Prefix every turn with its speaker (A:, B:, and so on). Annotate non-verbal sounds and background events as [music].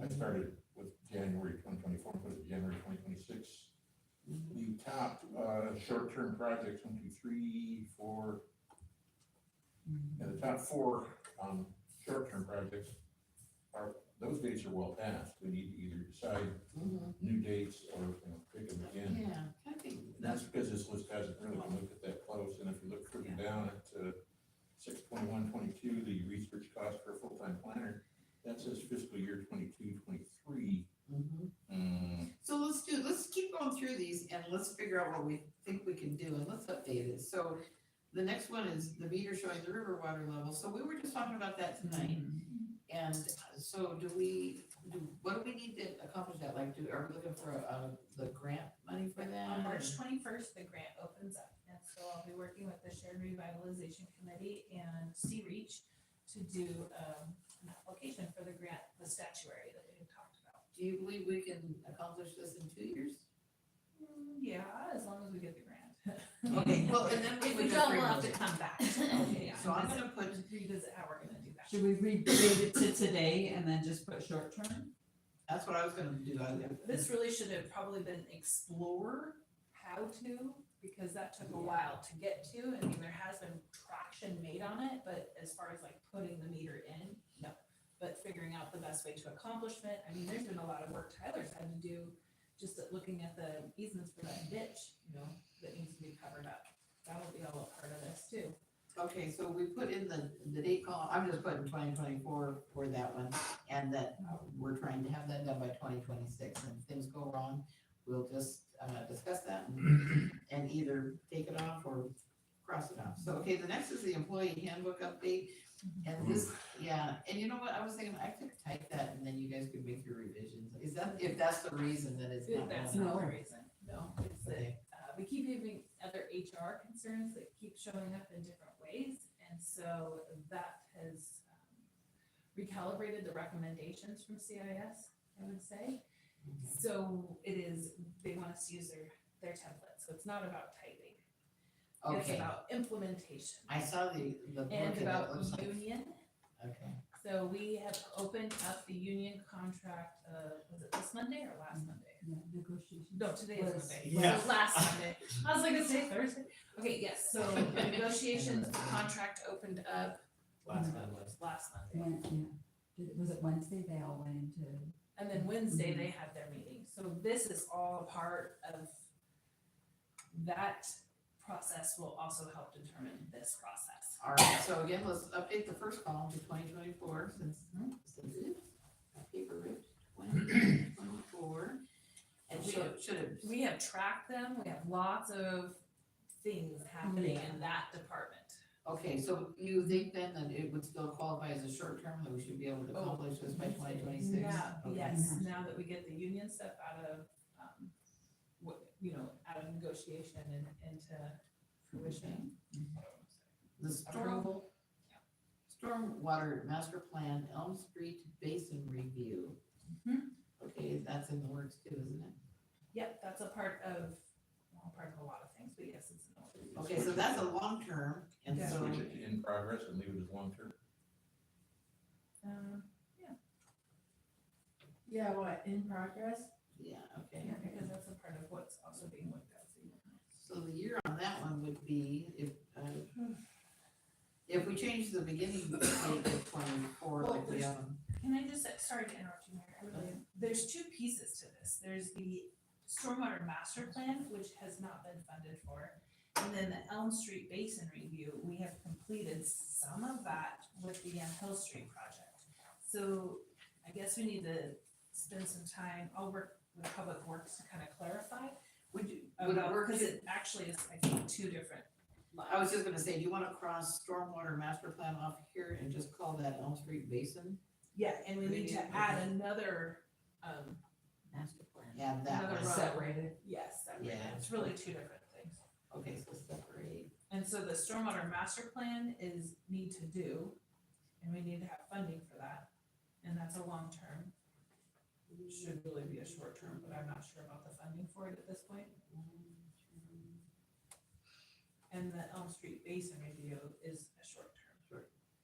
A: it started with January twenty twenty-four, put it January twenty twenty-six. The top, uh, short-term projects, one, two, three, four. Yeah, the top four, um, short-term projects are, those dates are well past. We need to either decide new dates or, you know, pick them again.
B: Mm-hmm. Yeah, I think,
A: And that's because this list hasn't really been looked at that close, and if you look further down at six twenty-one, twenty-two, the research cost for a full-time planner, that says fiscal year twenty-two, twenty-three.
B: Mhm.
A: Um,
B: so let's do, let's keep going through these and let's figure out what we think we can do and let's update it. So the next one is the meter showing the river water level. So we were just talking about that tonight.
C: Mm-hmm.
B: And so do we, do, what do we need to accomplish that? Like, do, are we looking for, uh, the grant money for that?
C: On March twenty-first, the grant opens up, and so I'll be working with the Shared Revitalization Committee and Sea Reach to do, um, an application for the grant, the statuary that we had talked about.
B: Do you believe we can accomplish this in two years?
C: Mm, Yeah, as long as we get the grant.
B: Okay, well, and then we
C: If we
B: would
C: don't,
B: just
C: we'll have to
B: revisit.
C: come
B: [laughs]
C: back.
B: Okay,
C: Yeah,
B: So I'm
C: that's-
B: gonna put,
C: Revisit how we're gonna do that.
D: Should we redate it to today and then just put short term?
B: that's what I was gonna do. I-
C: This really should have probably been explore how to, because that took a while to get to. I mean, there has been traction made on it, but as far as like putting the meter in, no. But figuring out the best way to accomplishment, I mean, there's been a lot of work Tyler's had to do, just at looking at the easements for that ditch, you know, that needs to be covered up. That'll be all a part of this too.
B: Okay, so we put in the, the date column, I'm just putting twenty twenty-four for that one, and that uh, we're trying to have that done by twenty twenty-six, and if things go wrong, we'll just, uh, discuss that and- and either take it off or cross it off. So, okay, the next is the employee handbook update, and this, yeah, and you know what, I was thinking, I could type that and then you guys could make your revisions, is that, if that's the reason that it's not.
C: That's
B: on?
C: not the reason, no, it's that
B: Okay,
C: uh, we keep having other HR concerns that keep showing up in different ways. And so that has um, recalibrated the recommendations from CIS, I would say.
B: Mm-hmm.
C: So it is, they want us to use their, their template, so it's not about typing. It's
B: Okay,
C: about implementation.
B: I saw the, the book
C: And
B: and it
C: about
B: looks like,
C: union.
B: okay,
C: So we have opened up the union contract, uh, was it this Monday or last Monday?
D: Negotiation.
C: No, today is
D: Was-
C: Monday.
E: Yeah.
C: Was Last Monday. I was like, it's today Thursday. Okay, yes, so the negotiations, the contract opened up
E: Last time, last.
C: last Monday.
D: When, yeah, Did- was it Wednesday they all went into?
C: And then Wednesday, they had their meeting. So this is all a part of that process will also help determine this process.
B: All right, so again, let's update the first column to twenty twenty-four since, hmm, since it is a paper ripped twenty twenty-four. And
C: We-
B: should, should it,
C: We have tracked them. We have lots of things happening in that department.
B: okay, so you think then that it would still qualify as a short term, that we should be able to accomplish this by twenty twenty-six?
C: Yeah, Oh, yes, now that we get the union stuff out of, um, what, you know, out of negotiation and into fruition.
B: The storm,
C: Approval.
B: stormwater master plan Elm Street Basin Review.
C: Mm-hmm.
B: Okay, that's in the works too, isn't it?
C: Yep, that's a part of, well, part of a lot of things, but yes, it's an order.
B: Okay, so that's a long term, and
C: Yeah.
B: so,
A: Switch it to in progress and leave it as long-term.
C: Um,
F: Yeah, what, in progress?
B: yeah, okay.
C: yeah, because that's a part of what's also being looked at. so you don't know.
B: So the year on that one would be if, uh, if we change the beginning date to twenty-four, like we, um,
C: Can I just, sorry to interrupt you, Mary, I really, there's two pieces to this. There's the stormwater master plan, which has not been funded for. And then the Elm Street Basin Review, we have completed some of that with the um, Hill Street project. So I guess we need to spend some time, I'll work with Public Works to kind of clarify
B: would you, would it
C: about,
B: work?
C: because it actually is, I think, two different.
B: I was just gonna say, do you wanna cross stormwater master plan off here and just call that Elm Street Basin?
C: Yeah, and we need to
B: Review.
C: add another, um,
D: Master plan.
B: Yeah, that
C: Another
B: one,
C: row.
D: Separated.
C: yes, that-
B: Yeah.
C: it's really two different things.
B: okay, so separate,
C: And so the stormwater master plan is need to do, and we need to have funding for that, and that's a long term. It Should really be a short term, but I'm not sure about the funding for it at this point. And the Elm Street Basin review is a short term.